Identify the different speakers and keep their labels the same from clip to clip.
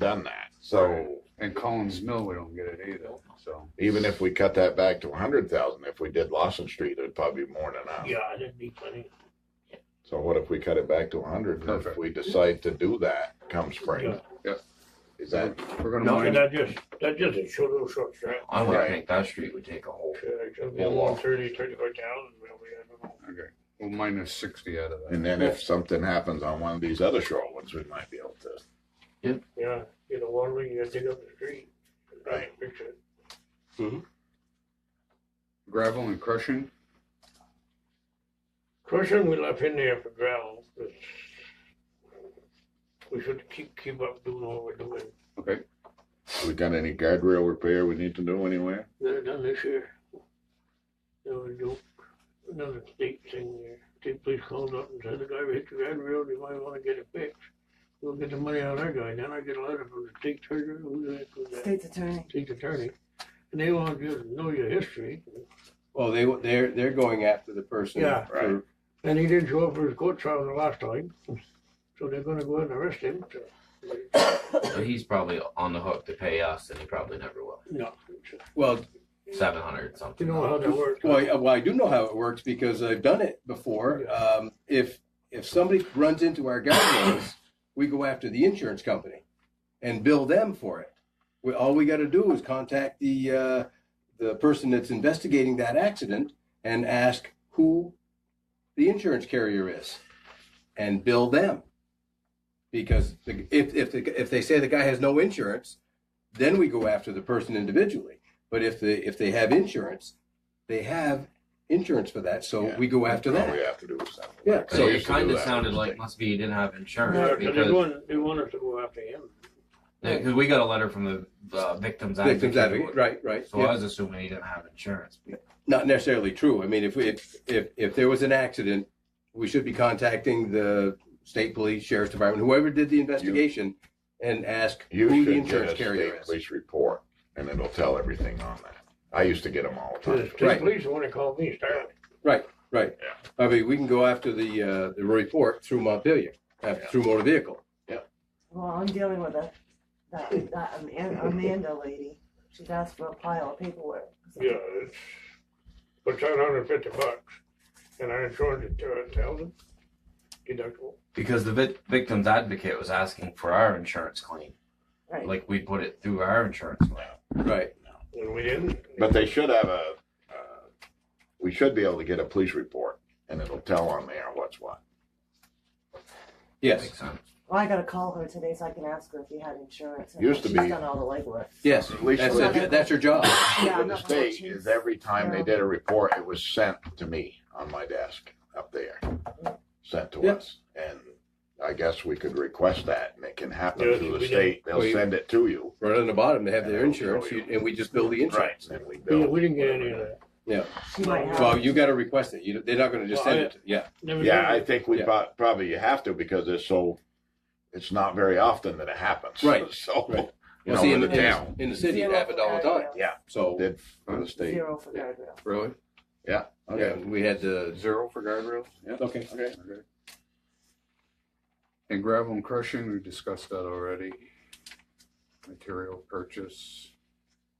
Speaker 1: done that.
Speaker 2: Right.
Speaker 1: So
Speaker 2: And Collins Mill, we don't get it either, so.
Speaker 1: even if we cut that back to a hundred thousand, if we did Lawson Street, it'd probably be more than enough.
Speaker 3: Yeah, that'd be plenty.
Speaker 1: So what if we cut it back to a hundred? If
Speaker 2: Perfect.
Speaker 1: we decide to do that come spring?
Speaker 3: Yeah.
Speaker 2: Yeah.
Speaker 1: Is that,
Speaker 2: We're gonna
Speaker 3: No, and
Speaker 2: wind,
Speaker 3: that just, that just a short little short Uh, strap.
Speaker 4: I would
Speaker 2: Right.
Speaker 4: think that street would take a whole. Whole lot.
Speaker 3: One thirty, thirty-four thousand, maybe, I don't know.
Speaker 2: okay, we'll minus sixty out of that.
Speaker 1: and then if something happens on one of these other short ones, we might be able to.
Speaker 3: Yeah, you know, one ring, you gotta dig up the street.
Speaker 1: Right.
Speaker 3: Fix it.
Speaker 2: Gravel and crushing,
Speaker 3: Crushing, we left in there for gravel, 'cause we should keep, keep up doing what we're doing.
Speaker 2: okay,
Speaker 1: We got any guardrail repair we need to do anywhere?
Speaker 3: They're done this year. There was no, another state thing there. State police called up and said, the guy hit the guardrail, you might wanna get it fixed. We'll get the money out of our guy. Then I get a letter from the state treasurer, who's the heck was that?
Speaker 5: State's attorney.
Speaker 3: state attorney, and they want you to know your history.
Speaker 6: Well, they, they're, they're going after the person.
Speaker 3: Yeah.
Speaker 6: for-
Speaker 3: And he didn't show up for his court trial the last time, so they're gonna go ahead and arrest him. So,
Speaker 4: So he's probably on the hook to pay us, and he probably never will.
Speaker 3: No,
Speaker 6: Well,
Speaker 4: Seven hundred something.
Speaker 3: you know how that works.
Speaker 6: well, I- well, I do know how it works because I've done it before. Um, if, if somebody runs into our guidelines, we go after the insurance company and bill them for it. We, all we got to do is contact the, uh, the person that's investigating that accident and ask who the insurance carrier is and bill them. Because the- if, if, the- if they say the guy has no insurance, then we go after the person individually. But if they, if they have insurance, they have insurance for that, so
Speaker 1: Yeah.
Speaker 6: we go after
Speaker 1: All
Speaker 6: that.
Speaker 1: we have to do is something.
Speaker 6: Yeah,
Speaker 4: So
Speaker 1: They
Speaker 4: it
Speaker 1: used to do
Speaker 4: kind of
Speaker 1: that.
Speaker 4: sounded like must be he didn't have insurance
Speaker 3: Yeah, 'cause they
Speaker 4: because
Speaker 3: want, they want us to go after him.
Speaker 4: because we got a letter from the uh, victims
Speaker 6: Victims
Speaker 4: advocate.
Speaker 6: advocate, right, right.
Speaker 4: So
Speaker 6: yeah.
Speaker 4: I was assuming he didn't have insurance.
Speaker 6: Not necessarily true. I mean, if, if, if, if there was an accident, we should be contacting the state police, sheriff's department, whoever did the investigation and ask who
Speaker 1: You
Speaker 6: the
Speaker 1: should get
Speaker 6: insurance
Speaker 1: a
Speaker 6: carrier
Speaker 1: state
Speaker 6: is.
Speaker 1: police report and it'll tell everything on that. I used to get them all the
Speaker 3: The
Speaker 1: time.
Speaker 3: state police wanna call me, start.
Speaker 6: Right. I mean, we can go after the, uh, the report through Montpelier, after, through motor vehicle.
Speaker 5: Well, I'm dealing with a, that, that Aman- Amanda lady. She's asked for a pile of paperwork.
Speaker 3: Yeah, it's, for seven hundred and fifty bucks, and our insurance is two thousand uh, deductible.
Speaker 4: Because the vic- victims advocate was asking for our insurance claim,
Speaker 5: Right.
Speaker 4: like we put it through our insurance claim.
Speaker 6: Right.
Speaker 3: And we didn't.
Speaker 1: But they should have a, uh, we should be able to get a police report and it'll tell on there what's what.
Speaker 6: Yes.
Speaker 4: Makes sense.
Speaker 5: Well, I gotta call her today so I can ask her if you had insurance. and
Speaker 1: Used to
Speaker 5: She's
Speaker 1: be-
Speaker 5: done all the legwork.
Speaker 6: Yes.
Speaker 1: At least
Speaker 6: That's,
Speaker 1: with-
Speaker 6: that's your job.
Speaker 5: Yeah,
Speaker 1: with
Speaker 5: I'm
Speaker 1: the
Speaker 5: not gonna
Speaker 1: state
Speaker 5: choose.
Speaker 1: is every time they
Speaker 5: Yeah.
Speaker 1: did a report, it was sent to me on my desk up there. Sent to
Speaker 6: Yeah.
Speaker 1: us and I guess we could request that and it can happen
Speaker 3: Yeah,
Speaker 1: through the
Speaker 3: we did.
Speaker 1: state. They'll
Speaker 6: We-
Speaker 1: send it to you.
Speaker 6: Right on the bottom, they have
Speaker 1: Yeah,
Speaker 6: their
Speaker 1: I'll
Speaker 6: insurance,
Speaker 1: show you.
Speaker 6: you- and we just bill the insurance.
Speaker 1: And then we
Speaker 3: Yeah,
Speaker 1: bill.
Speaker 3: we didn't get any of that.
Speaker 5: She might have.
Speaker 6: Well, you got to request it. You, they're not going to just
Speaker 3: Well,
Speaker 6: send
Speaker 3: I-
Speaker 6: it. to- Yeah.
Speaker 3: Never
Speaker 1: Yeah, I
Speaker 3: did.
Speaker 1: think we
Speaker 6: Yeah.
Speaker 1: prob- probably you have to because it's so, it's not very often that it happens.
Speaker 6: Right.
Speaker 1: So,
Speaker 6: Right.
Speaker 1: you
Speaker 6: Well,
Speaker 1: know,
Speaker 6: see,
Speaker 1: in
Speaker 6: in
Speaker 1: the
Speaker 6: the-
Speaker 1: town,
Speaker 6: In the city, it
Speaker 5: Zero
Speaker 6: happened all the
Speaker 5: for
Speaker 6: time.
Speaker 5: guardrails.
Speaker 1: Yeah.
Speaker 6: So
Speaker 1: did for the state.
Speaker 5: Zero for guardrail.
Speaker 6: really,
Speaker 1: Okay.
Speaker 6: yeah, we had the
Speaker 2: zero for guardrails, yeah,
Speaker 6: okay.
Speaker 1: Okay.
Speaker 2: okay. And gravel and crushing, we discussed that already. Material purchase.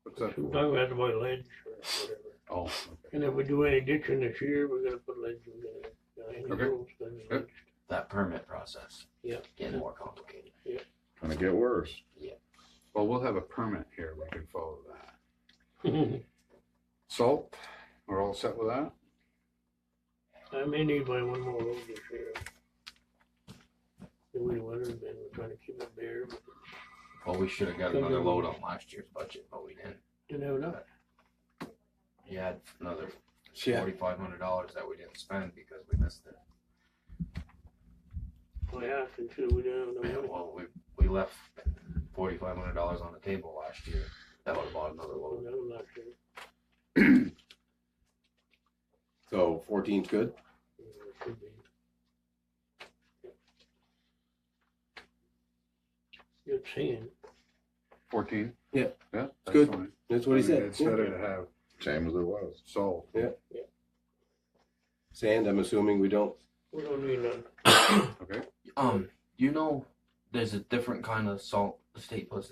Speaker 2: What's that for?
Speaker 3: Talking about to buy ledge or whatever.
Speaker 2: Oh, okay.
Speaker 3: And if we do any ditching this year, we're gonna put ledge, we're gonna, uh, any
Speaker 2: Okay.
Speaker 3: roads, gonna be
Speaker 2: Yep.
Speaker 3: ledged.
Speaker 4: That permit process.
Speaker 3: Yeah.
Speaker 4: Getting more complicated.
Speaker 1: Gonna get worse.
Speaker 2: well, we'll have a permit here, we can follow that. Salt, we're all set with that?
Speaker 3: I may need my one more road this year. The way the weather's been, we're trying to keep it bare, but
Speaker 4: Well, we should have got another load on last year's budget, but we didn't.
Speaker 3: didn't have enough.
Speaker 4: We had another
Speaker 6: Yeah.
Speaker 4: forty-five hundred dollars that we didn't spend because we missed it.
Speaker 3: I asked and said we didn't have
Speaker 4: Yeah,
Speaker 3: enough money.
Speaker 4: well, we, we left forty-five hundred dollars on the table last year. That would have bought another
Speaker 3: Oh,
Speaker 4: load.
Speaker 3: that was last year.
Speaker 6: So 14's good.
Speaker 3: Yeah, it could be. Good seeing.
Speaker 2: Fourteen?
Speaker 6: Yeah.
Speaker 2: Yeah. that's
Speaker 6: Good.
Speaker 2: fine.
Speaker 6: That's what he
Speaker 2: I mean,
Speaker 6: said.
Speaker 2: It's
Speaker 6: Yeah.
Speaker 2: better to have
Speaker 1: Same as it was.
Speaker 2: salt.
Speaker 6: Sand. I'm assuming we don't.
Speaker 3: We don't need none.
Speaker 2: Okay,
Speaker 4: Um, you know, there's a different kind of salt the state puts